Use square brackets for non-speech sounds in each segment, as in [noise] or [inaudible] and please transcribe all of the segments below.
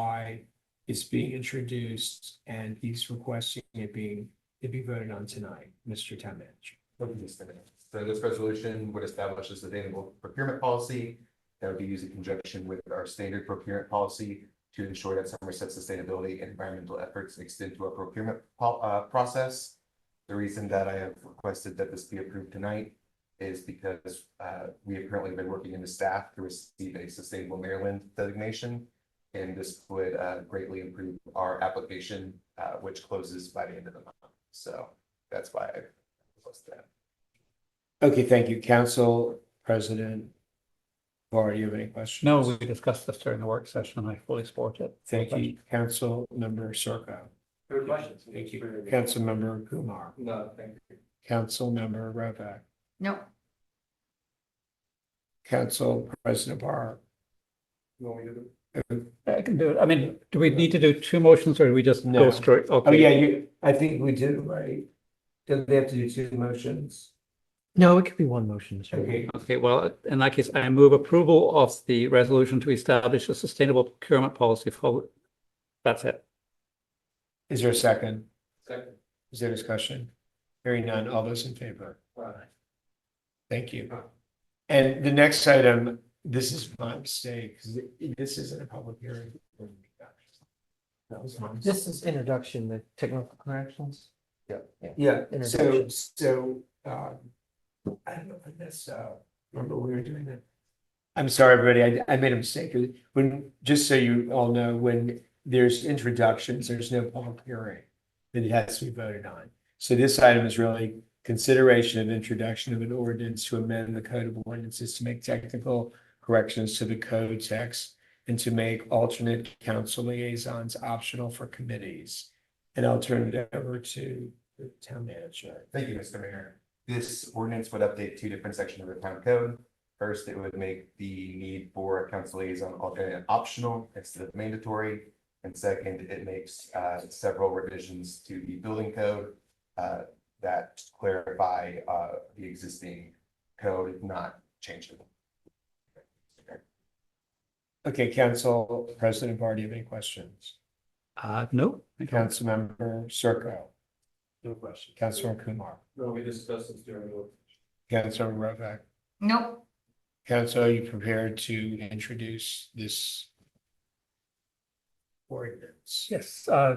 why it's being introduced and he's requesting it being, it be voted on tonight, Mr. Town Manager. So this resolution would establish a sustainable procurement policy that would be used in conjunction with our standard procurement policy to ensure that Somerset sustainability and environmental efforts extend to our procurement po- uh, process. The reason that I have requested that this be approved tonight is because uh, we have currently been working in the staff to receive a Sustainable Maryland designation. And this would uh, greatly improve our application, uh, which closes by the end of the month. So that's why I requested that. Okay, thank you, Council President. Laura, you have any questions? No, we discussed this during the work session and I fully support it. Thank you, Council Member Circo. Third questions. Thank you, Council Member Kumar, No, thank you. Council Member Rovak, No, Council President Bar. You want me to do? it? I can do it. I mean, do we need to do two motions or do we just No. go straight? Oh, Okay. yeah, you, I think we did, right? Does they have to do two motions? No, it could be one motion, Mr. Mayor. Okay, Okay, well, in that case, I move approval of the resolution to establish a sustainable procurement policy for, that's it. Is there a second? Second. Is there discussion? Hearing none, all those in favor? Aye. Thank you. And the next item, this is my mistake, because this isn't a public hearing. That was my mistake. This is introduction, the technical corrections. yeah, So, Introduction. so, um, I don't know, if I messed up. Remember we were doing that? I'm sorry, everybody, I, I made a mistake. When, just so you all know, when there's introductions, there's no public hearing that it has to be voted on. So this item is really consideration of introduction of an ordinance to amend the code of ordinances to make technical corrections to the code text and to make alternate council liaisons optional for committees. And I'll turn it over to the town manager. Thank you, Mr. Mayor. This ordinance would update two different sections of the town code. First, it would make the need for a council liaison alternate optional instead of mandatory. And second, it makes uh, several revisions to the building code uh, that clarify uh, the existing code, if not change it. Okay, Council President Bar, do you have any questions? Uh, no. I don't. Councilmember Circo, No question. Councilmember Kumar, No, we discussed this during the. Councilmember Rovak. no, Council, are you prepared to introduce this ordinance? Yes, uh.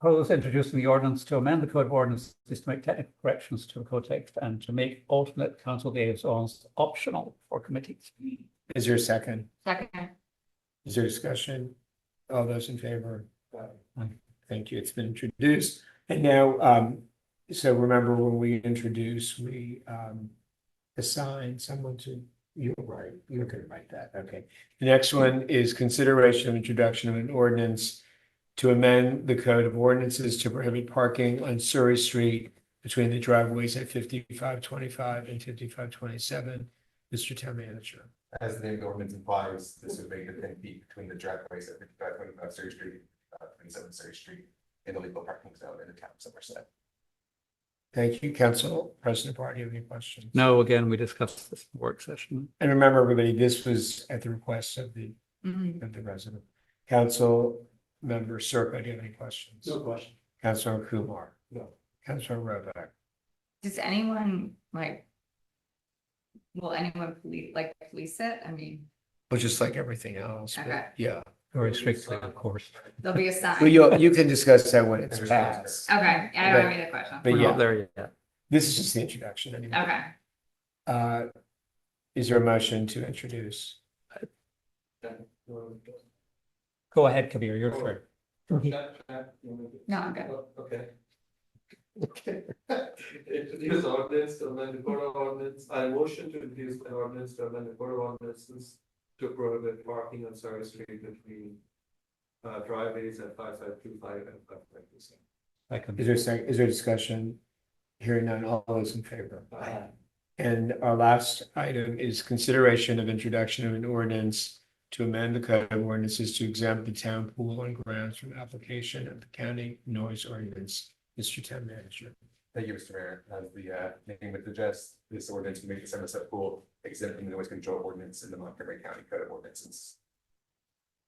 Propose introducing the ordinance to amend the code of ordinances to make technical corrections to the code text and to make alternate council liaisons optional for committees. Is there a second? second, Is there discussion? All those in favor? Aye. Thank you. It's been introduced. And now, um, so remember when we introduce, we, um, assign someone to, you're right, you're gonna write that, okay. The next one is consideration of introduction of an ordinance to amend the code of ordinances to prohibit parking on Surrey Street between the driveways at fifty-five twenty-five and fifty-five twenty-seven. Mr. Town Manager. As the name of the ordinance implies, this would make the ten feet between the driveways at fifty-five twenty-five Surrey Street, uh, twenty-seven Surrey Street, in the legal parking zone in the town of Somerset. Thank you, Council President Barr, do you have any questions? No, again, we discussed this in the work session. And remember, everybody, this was at the request of the, Mhm. of the resident. Council member Circa, do you have any questions? No question. Councilor Kumar. No. Councilor Rovak. does anyone like? Will anyone police, like police it? I mean, Well, just like everything else, Okay. but yeah. Very strictly, of course. there'll be a sign. Well, you, you can discuss that when it's There's- passed. Okay, I don't have any other question. But We're not yeah. there yet. This is just the introduction anyway. Okay, Uh, is there a motion to introduce? [laughs] Go ahead, Kabir, you're free. No, I'm good. Okay. [laughs] Introduce ordinance to amend the code of ordinance, I motion to introduce an ordinance to amend the code of ordinances to prohibit parking on Surrey Street between uh, driveways at five five two five and five five two seven. I can- Is there, a sec- is there discussion? Hearing none, all those in favor? And our last item is consideration of introduction of an ordinance to amend the code of ordinances to exempt the town pool and grounds from application of the county noise ordinance. Mr. Town Manager. Thank you, Mr. Mayor. As the uh, name would suggest, this ordinance would make the Somerset Pool exempt from the noise control ordinance in the Montgomery County Code of Ordinances.